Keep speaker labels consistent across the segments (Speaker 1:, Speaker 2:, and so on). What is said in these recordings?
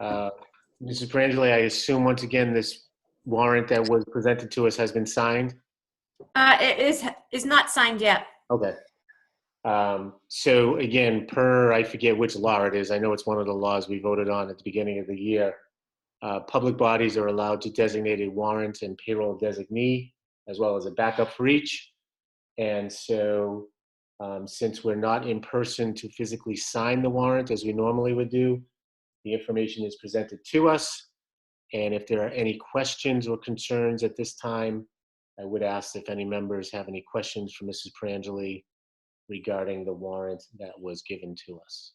Speaker 1: Uh, Mrs. Perangeli, I assume once again, this warrant that was presented to us has been signed?
Speaker 2: Uh, it is, is not signed yet.
Speaker 1: Okay. Um, So again, per, I forget which law it is, I know it's one of the laws we voted on at the beginning of the year. Uh, Public bodies are allowed to designate a warrant and payroll designee, as well as a backup for each. And so, um, since we're not in person to physically sign the warrant as we normally would do, the information is presented to us. And if there are any questions or concerns at this time, I would ask if any members have any questions for Mrs. Perangeli regarding the warrant that was given to us.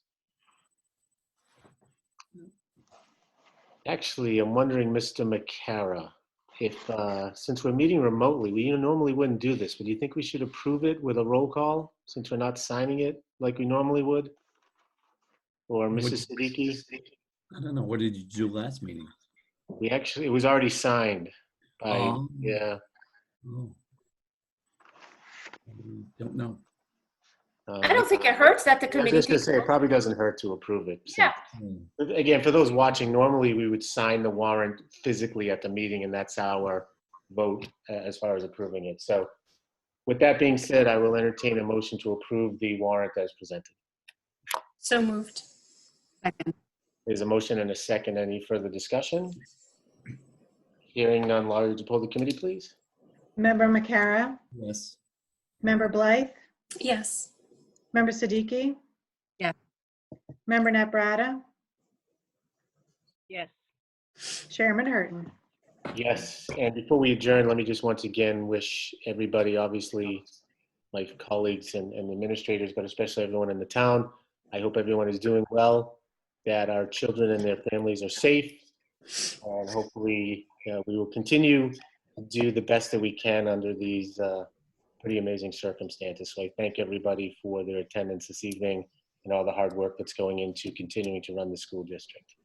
Speaker 1: Actually, I'm wondering, Mr. McCara, if, uh, since we're meeting remotely, we normally wouldn't do this, but do you think we should approve it with a roll call, since we're not signing it like we normally would? Or
Speaker 3: Would-
Speaker 1: Mrs. Siddiqui?
Speaker 3: I don't know. What did you do last meeting?
Speaker 1: We actually, it was already signed by,
Speaker 3: Um,
Speaker 1: yeah.
Speaker 3: oh. Mm, Don't know.
Speaker 1: uh,
Speaker 2: I don't think it hurts that the
Speaker 1: I was
Speaker 2: committee.
Speaker 1: just gonna say, it probably doesn't hurt to approve it. since-
Speaker 2: Yeah.
Speaker 3: Hmm,
Speaker 1: But Again, for those watching, normally we would sign the warrant physically at the meeting, and that's our vote uh, as far as approving it. So with that being said, I will entertain a motion to approve the warrant as presented.
Speaker 2: So moved.
Speaker 1: There's a motion and a second. Any further discussion? Hearing none, Laurie, would you poll the committee, please?
Speaker 4: Member Makara,
Speaker 3: Yes.
Speaker 4: Member Blythe,
Speaker 2: Yes.
Speaker 4: Member Siddiqui?
Speaker 5: Yeah.
Speaker 4: Member Naprata,
Speaker 5: Yes.
Speaker 4: Chairman Hurton.
Speaker 1: Yes, and before we adjourn, let me just once again wish everybody, obviously, my colleagues and and administrators, but especially everyone in the town, I hope everyone is doing well, that our children and their families are safe, and hopefully, uh, we will continue to do the best that we can under these uh, pretty amazing circumstances. So I thank everybody for their attendance this evening and all the hard work that's going into continuing to run the school district.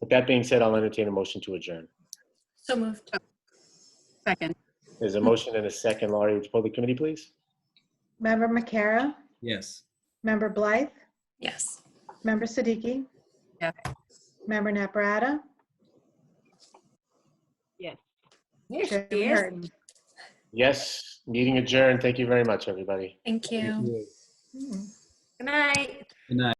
Speaker 1: With that being said, I'll entertain a motion to adjourn.
Speaker 2: So moved.
Speaker 5: Second.
Speaker 1: There's a motion and a second. Laurie, would you poll the committee, please?
Speaker 4: Member Makara,
Speaker 3: Yes.
Speaker 4: Member Blythe,
Speaker 2: Yes.
Speaker 4: Member Siddiqui?
Speaker 5: Yeah.
Speaker 4: Member Naprata,
Speaker 5: Yes.
Speaker 2: Yes,
Speaker 4: Chairman
Speaker 2: yes.
Speaker 4: Hurton.
Speaker 1: Yes, meeting adjourned. Thank you very much, everybody.
Speaker 2: Thank you.
Speaker 3: Good
Speaker 4: Hmm.
Speaker 2: Good night.
Speaker 3: night.